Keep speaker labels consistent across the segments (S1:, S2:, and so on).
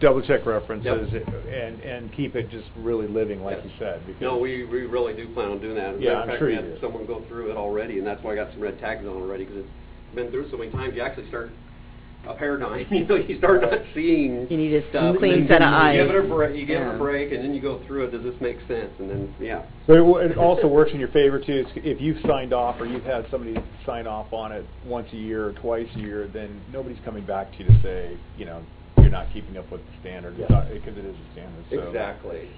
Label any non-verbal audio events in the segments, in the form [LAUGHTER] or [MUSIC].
S1: double check references
S2: Yep.
S1: and, and keep it just really living like you
S2: Yes.
S1: said. because-
S2: No, we, we really do plan on doing that. As a
S1: Yeah,
S2: matter of
S1: I'm
S2: fact,
S1: sure
S2: we
S1: you
S2: had
S1: did.
S2: Someone go through it already, and that's why I got some red tags on already, because it's been through so many times, you actually start a paradigm, [LAUGHS] you know, you start not seeing.
S3: You need a
S2: stuff, and
S3: clean
S2: then
S3: set of
S2: you Give
S3: eyes.
S2: it a break, you give it
S3: Yeah.
S2: a break, and then you go through it, does this make sense? And then, yeah.
S1: But it w- it also works in your favor too, It's- if you've signed off or you've had somebody sign off on it once a year or twice a year, then nobody's coming back to you to say, you know, you're not keeping up with the standard,
S2: Yeah.
S1: because it is a standard, so.
S2: Exactly.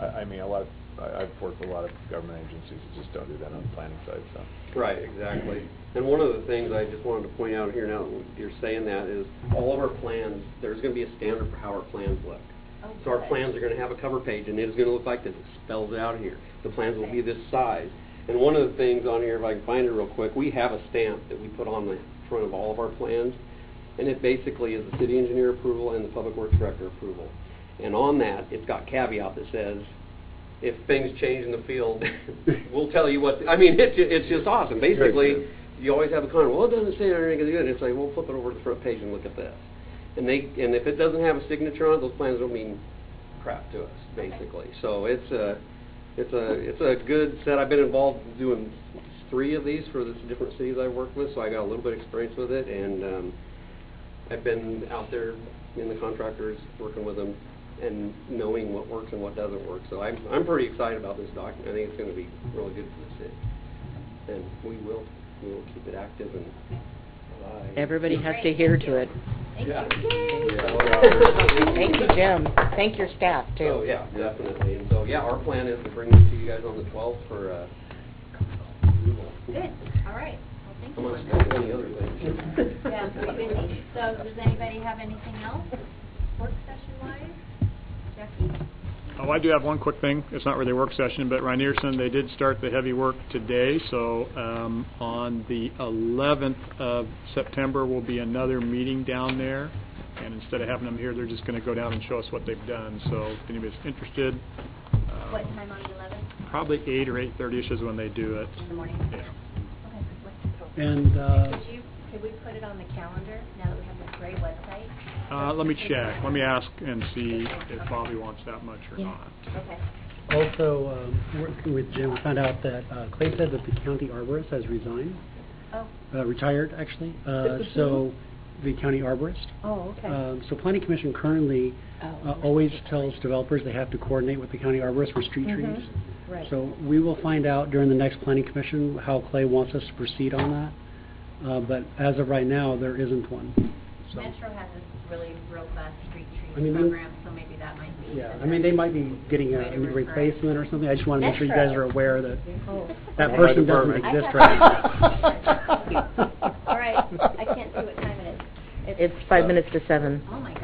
S1: I, I mean, a lot, of- I, I've worked with a lot of government agencies that just don't do that on the planning side, so.
S2: Right, exactly. And one of the things I just wanted to point out here now, that you're saying that, is all of our plans, there's going to be a standard for how our plans look. So our plans are going to have a cover page, and it is going to look like this. It spells it out here. The plans will be this size. And one of the things on here, if I can find it real quick, we have a stamp that we put on the front of all of our plans, and it basically is the city engineer approval and the public works director approval. And on that, it's got caveat that says, if things change in the field, we'll tell you what, I mean, it's, ju- it's just awesome. Basically,
S1: good.
S2: you always have a comment, well, it doesn't say anything good. It's like, well, flip it over to the front page and look at this. And they, and if it doesn't have a signature on it, those plans don't mean crap to us, basically. So it's a, it's a, it's a good set. I've been involved doing three of these for the different cities I've worked with, so I got a little bit of experience with it, and, um, I've been out there in the contractors, working with them, and knowing what works and what doesn't work. So I'm, I'm pretty excited about this document. I think it's gonna be really good for the city. And we will, we will keep it active and alive.
S3: Everybody has to adhere to it.
S4: Thank
S2: Yeah.
S4: you.
S2: Yeah.
S3: Thank you, Jim. Thank your staff, too.
S2: So, Oh, yeah, definitely. And so, yeah, our plan is to bring this to you guys on the 12th for, uh,
S4: Good, all right. Well, thank
S2: I'm
S4: you.
S2: gonna skip any other things.
S3: [LAUGHS]
S4: Yeah, pretty busy. So does anybody have anything else, work session wise? Jackie?
S5: Oh, I do have one quick thing. It's not really a work session, but Reinerson, they did start the heavy work today, so um, on the 11th of September will be another meeting down there, and instead of having them here, they're just going to go down and show us what they've done, so if anybody's interested, um,
S4: What time on the eleventh?
S5: probably 8 or 8:30ish is when they do it.
S4: In the morning?
S5: Yeah.
S4: Okay, what's the-
S6: And, uh,
S4: Could you, could we put it on the calendar now that we have this great website?
S5: Uh, Let me check, let me ask and see if Bobby wants that much or
S3: Yeah.
S5: not.
S4: Okay.
S6: also, um, working with Jim, we found out that uh, Clay said that the county arborist has resigned,
S4: Oh,
S6: uh, retired, actually. Uh, So, the county arborist.
S3: Oh,
S5: Uh,
S6: Um, So planning commission currently uh, always tells developers they have to coordinate with the county arborist for street
S3: Mhm.
S6: trees.
S3: Right.
S6: So we will find out during the next planning commission how Clay wants us to proceed on that. Uh, But as of right now, there isn't one. So,
S4: Metro has this really robust street
S6: I
S4: trees
S6: mean, they-
S4: program, so maybe that might be.
S6: Yeah, I mean, they might be getting a
S4: Way to
S6: a new
S4: refer.
S6: replacement or something. I just want to make sure you guys are aware that
S3: Oh.
S6: that
S1: My
S6: person doesn't
S1: department.
S6: exist
S4: I
S6: right
S4: thought-
S6: now.
S4: [LAUGHS] All right, I can't see what time it is.
S3: It's five minutes to seven.
S4: Oh, my